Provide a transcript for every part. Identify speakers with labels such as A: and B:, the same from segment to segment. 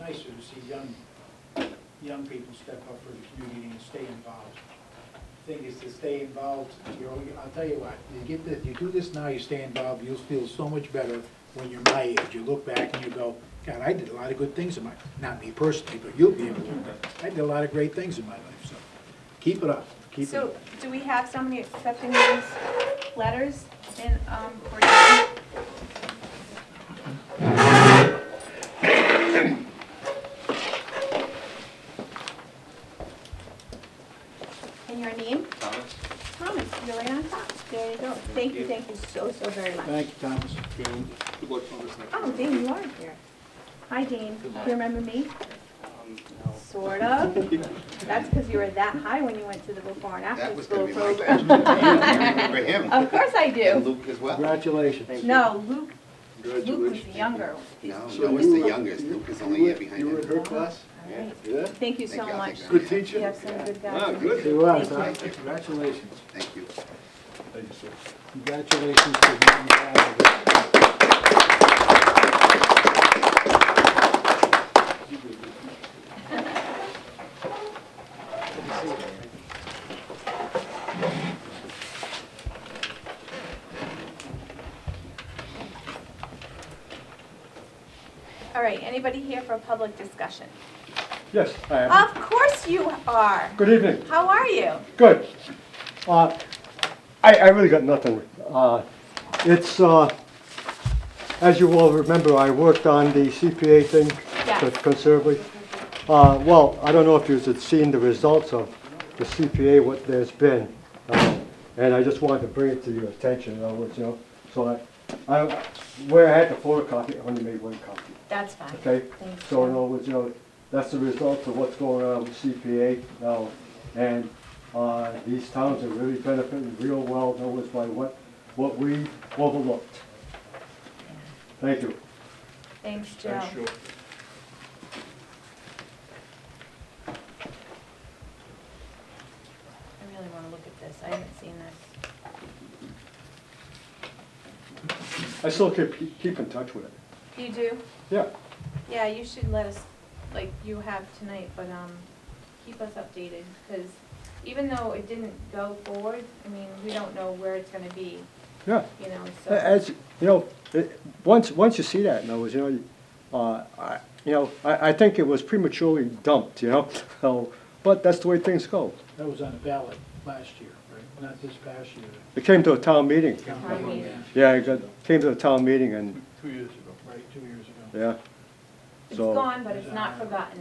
A: nicer to see young, young people step up for the community and stay involved. Thing is to stay involved, you know, I'll tell you what, you get this, you do this now, you stay involved, you'll feel so much better when you're my age. You look back and you go, God, I did a lot of good things in my, not me personally, but you'll be able to. I did a lot of great things in my life, so keep it up, keep it
B: So,
A: up.
B: do we have somebody accepting these letters in, um, for you? And your name?
C: Thomas?
B: Thomas, you're right on top. There you go. Thank you, thank you so, so very much.
A: Thank you, Thomas.
C: Good luck, Thomas. next
B: Oh,
C: time.
B: Dane, you are here. Hi, Dane. Do you remember me?
C: Um, no.
B: Sort of. That's because you were that high when you went to the before and
D: That
B: after
D: was
B: school
D: gonna be my
B: program.
D: question. You Remember him?
B: Of course I
D: And
B: do.
D: Luke as well?
A: Congratulations.
B: No, Luke, Luke was
E: Congratulations.
B: the younger.
D: No,
E: So
D: no, he's
E: you-
D: the youngest. Luke
B: Oh,
D: is only a year behind
E: You were in
D: him.
E: her class?
B: Alright.
E: Yeah.
B: Thank you
D: Thank
B: so
D: you, I'll
B: much.
D: take that.
E: Good
B: You
E: teacher?
B: have some good
C: Ah,
B: guys.
C: good.
E: Good.
A: You are,
B: Thank you.
A: Thomas. Congratulations.
D: Thank you.
E: Thank you, sir.
A: Congratulations to you and all of us.
B: All right, anybody here for a public discussion?
F: Yes, I am.
B: Of course you are.
F: Good evening.
B: How are you?
F: Good. Uh, I, I really got nothing. Uh, It's, uh, as you all remember, I worked on the CPA thing
B: Yes.
F: con- considerably. Uh, Well, I don't know if you had seen the results of the CPA, what there's been. uh, And I just wanted to bring it to your attention, in other words, you know, so I, I, where I had the photocopy, I only made one copy.
B: That's fine.
F: Okay,
B: Thank
F: so in
B: you.
F: other words, you know, that's the result of what's going on with CPA now. And uh, these towns are really benefiting real well, in other words, by what, what we overlooked. Thank you.
B: Thanks, Joe. I really want to look at this. I haven't seen this.
F: I still keep, keep in touch with it.
B: You do?
F: Yeah,
B: Yeah, you should let us, like you have tonight, but, um, keep us updated, because even though it didn't go forward, I mean, we don't know where it's gonna be,
F: yeah.
B: you know, so.
F: As, you know, it- once, once you see that, in other words, you know, you- uh, I, you know, I, I think it was prematurely dumped, you know? So, But that's the way things go.
A: That was on the ballot last year, right? Not this past year.
F: It came to a town meeting.
B: Town meeting.
F: Yeah, I got, came to the town meeting and,
E: Two years ago.
A: Right, two years ago.
F: yeah.
B: It's
F: So-
B: gone, but it's not forgotten,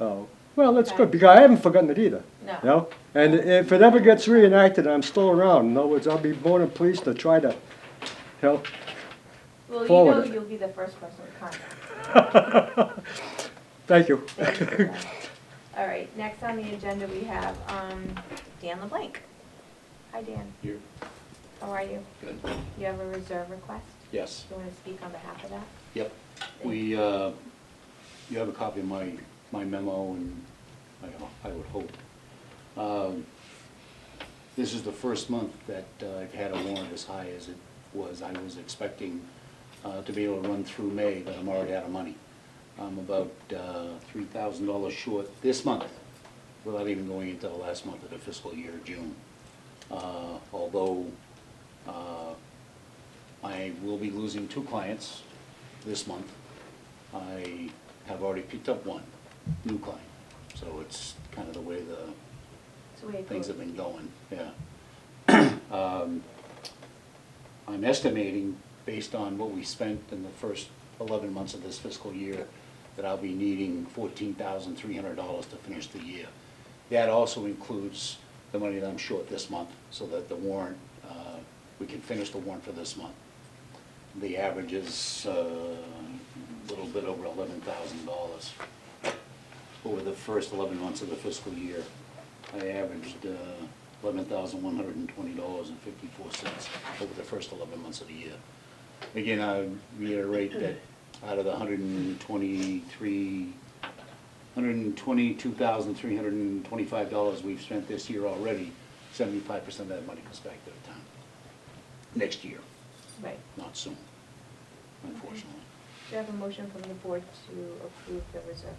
F: Oh, well, that's
B: Okay.
F: good, because I haven't forgotten it either,
B: no.
F: you know? And if it ever gets reenacted, I'm still around, in other words, I'll be more than pleased to try to, you know?
B: Well, you know
F: forward it.
B: you'll be the first person to contact.
F: Thank you.
B: Thank you for that. All right, next on the agenda, we have, um, Dan LeBlanc. Hi, Dan.
G: Here.
B: How are you?
G: Good.
B: You have a reserve request?
G: Yes,
B: Do you wanna speak on behalf of that?
G: yep. We, uh, you have a copy of my, my memo and I, ho- I would hope. Um, This is the first month that uh, I've had a warrant as high as it was. I was expecting uh, to be able to run through May, but I'm already out of money. I'm about uh, three thousand dollars short this month, without even going into the last month of the fiscal year, June. Uh, Although, uh, I will be losing two clients this month. I have already picked up one new client, so it's kind of the way the
B: So we
G: things have
B: approve.
G: been going, yeah. Um, I'm estimating, based on what we spent in the first eleven months of this fiscal year, that I'll be needing fourteen thousand three hundred dollars to finish the year. That also includes the money that I'm short this month, so that the warrant, uh, we can finish the warrant for this month. The average is uh, a little bit over eleven thousand dollars. Over the first eleven months of the fiscal year, I averaged uh, eleven thousand one hundred and twenty dollars and fifty-four cents over the first eleven months of the year. Again, I reiterate that out of the hundred and twenty-three, hundred and twenty-two thousand three hundred and twenty-five dollars we've spent this year already, seventy-five percent of that money comes back to the town next year
B: Right.
G: not soon, unfortunately.
B: Do you have a motion from the board to approve the reserve